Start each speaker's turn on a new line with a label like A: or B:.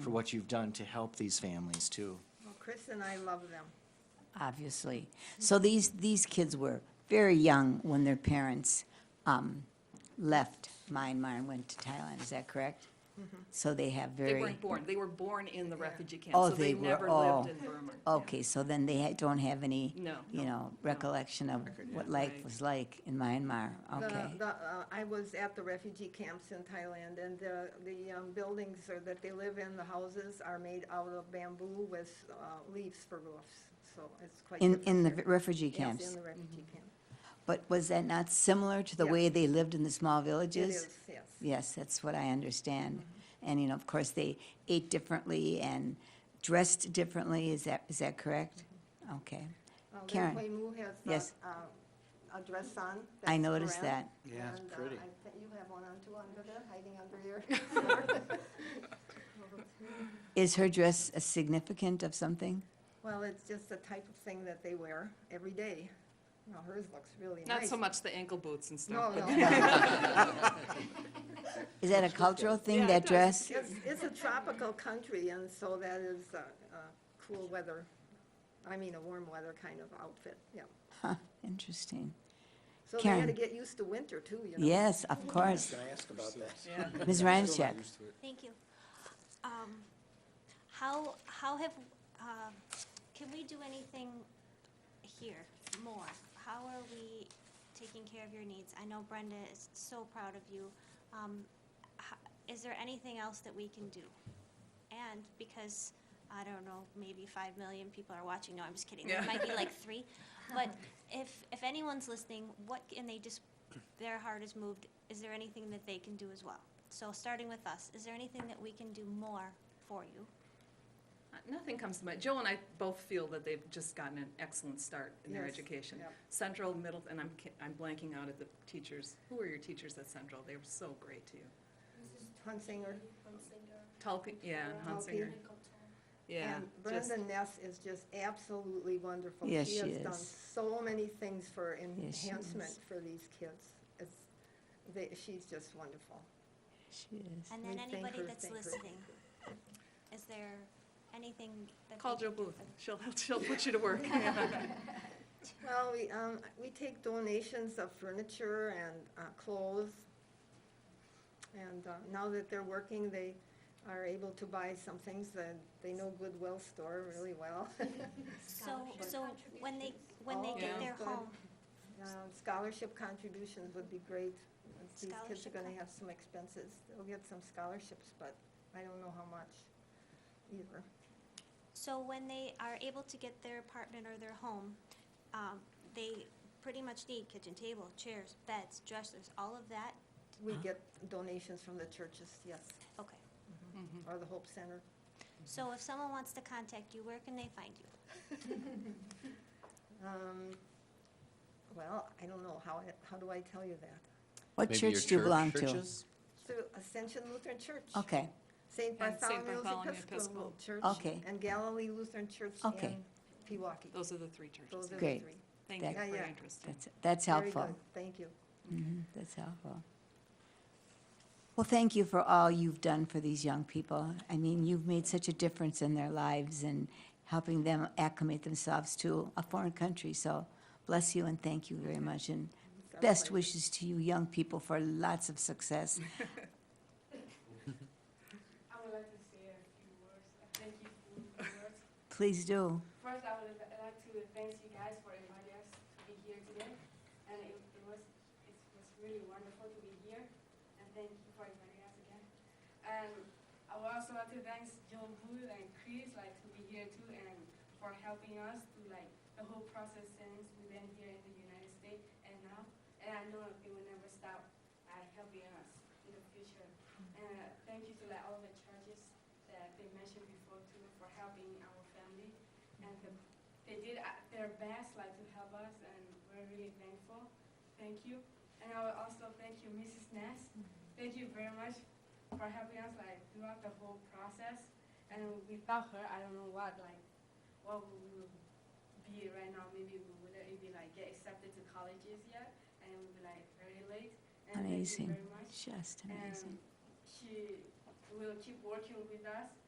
A: for what you've done to help these families too.
B: Well, Chris and I love them.
C: obviously. So these, these kids were very young when their parents um, left Myanmar and went to Thailand, is that correct?
B: Mm-hmm.
C: So they have very.
D: They weren't born, they were born in the refugee camp,
C: Oh,
D: so they
C: they were-
D: never
C: oh.
D: lived in Burma.
C: Okay, so then they ha- don't have any,
D: No.
C: you know, recollection of what life
D: Right.
C: was like in Myanmar,
B: The-
C: okay?
B: the, uh, I was at the refugee camps in Thailand, and the, the um, buildings or that they live in, the houses are made out of bamboo with uh, leaves for roofs, so it's quite.
C: In,
B: different
C: in the
B: here.
C: refugee
B: Yes,
C: camps?
B: in the refugee camp.
C: But was that not similar to the
B: Yeah.
C: way they lived in the small
B: It
C: villages?
B: is, yes.
C: Yes, that's what I understand. And, you know, of course, they ate differently and dressed differently, is that, is that correct?
D: Mm-hmm.
C: Okay,
B: Uh, Lin
C: Karen.
B: Kuei Mu has the,
C: Yes.
B: uh, a dress on.
C: I
B: that's
C: noticed
B: Korean,
A: Yeah, it's
B: and, uh,
A: pretty.
B: I think You have one on too under there, hiding under your.
C: is her dress a significant of something?
B: Well, it's just the type of thing that they wear every day. Now hers looks really nice.
D: Not so much the ankle boots and
B: No,
D: stuff, but
B: no.
C: Is that a cultural thing,
D: Yeah,
C: that
D: it does.
C: dress?
B: It's, it's a tropical country, and so that is a, a cool weather, I mean, a warm weather kind of outfit, yeah.
C: Huh, interesting.
B: So they had to
C: Karen.
B: get used to winter too, you know?
C: Yes, of course.
E: I ask about that?
C: Ms. Ryanchek?
F: Thank you. Um, How, how have, um, can we do anything here more? How are we taking care of your needs? I know Brenda is so proud of you. Um, ho- Is there anything else that we can do? And because, I don't know, maybe five million people are watching, no, I'm just kidding, there
D: Yeah.
F: might be like three. But if, if anyone's listening, what, can they just, their heart is moved, is there anything that they can do as well? So starting with us, is there anything that we can do more for you?
D: nothing comes to mind. Joe and I both feel that they've just gotten an excellent start in their
B: Yes,
D: education.
B: yep.
D: Central, middle, and I'm, ki- I'm blanking out at the teachers. Who were your teachers at Central? They were so great to you.
B: Hunsinger.
D: Tulpe, yeah, and Hunsinger,
B: Tulpe.
D: yeah.
B: And
D: just-
B: Brenda Ness is just absolutely wonderful.
C: Yes, she
B: has done
C: is.
B: so many things for
C: Yes, she
B: enhancement
C: is.
B: for these kids. It's, they, she's just wonderful.
C: She is.
F: And then
B: We thank
F: anybody
B: her,
F: that's
B: thank her.
F: listening, is there anything that?
D: Call
F: they
D: Joe
F: can do
D: Booth.
F: for-
D: She'll, she'll put you to work.
B: Well, we, um, we take donations of furniture and, uh, clothes. And, uh, now that they're working, they are able to buy some things that they know Goodwill store really well.
F: So, so when they, when they
B: Oh,
F: get
D: Yeah.
F: their
B: good.
F: home,
B: Um, Scholarship contributions would be great. If These kids are
F: Scholarship
B: gonna
F: con-
B: have some expenses. They'll get some scholarships, but I don't know how much either.
F: so when they are able to get their apartment or their home, um, they pretty much need kitchen table, chairs, beds, dressers, all of that?
B: We get donations from the churches, yes,
F: Okay.
B: or the Hope Center.
F: So if someone wants to contact you, where can they find you?
B: Um, Well, I don't know, how, I- how do I tell you that?
C: What
G: Maybe your
C: church do you belong to?
G: churches?
B: Through Ascension Lutheran Church.
C: Okay,
B: St.
D: And St.
B: Bartholomew's
D: Bartholomew
B: Episcopal Church.
C: Okay.
B: And Galilee Lutheran Church
C: Okay.
B: in Pewaukee.
D: Those are the three
B: Those
D: churches.
B: are the
C: Great.
B: three.
D: Thank you
C: That-
D: for your
B: Yeah, yeah.
D: interest. in-
C: that's, that's
B: Very
C: helpful.
B: good, Thank you.
C: Mhm, That's helpful. Well, thank you for all you've done for these young people. I mean, you've made such a difference in their lives and helping them acclimate themselves to a foreign country. So bless you and thank you very much. And
B: It's our
C: best
B: pleasure.
C: wishes to you young people for lots of success.
H: I would like to say a few words. Uh, Thank you for the words.
C: Please do.
H: First, I would li- like to thank you guys for inviting us to be here today. And it, it was it was really wonderful to be here. And thank you for inviting us again. And I would also like to thank John Hood and Chris like to be here too and for helping us through like the whole process since we've been here in the United States and now. And I know it will never stop at helping us in the future. And Uh, thank you to like all the churches that they mentioned before too for helping our family. And the, they did uh, their best like to help us and we're really thankful. Thank you. And I will also thank you, Mrs. Ness. Thank you very much for helping us like throughout the whole process. And without her, I don't know what like what we will be right now. Maybe we wouldn't even like get accepted to colleges yet, and it would be like very late. And
C: Amazing.
H: Thank you very much.
C: Just
H: And
C: amazing.
H: she will keep working with us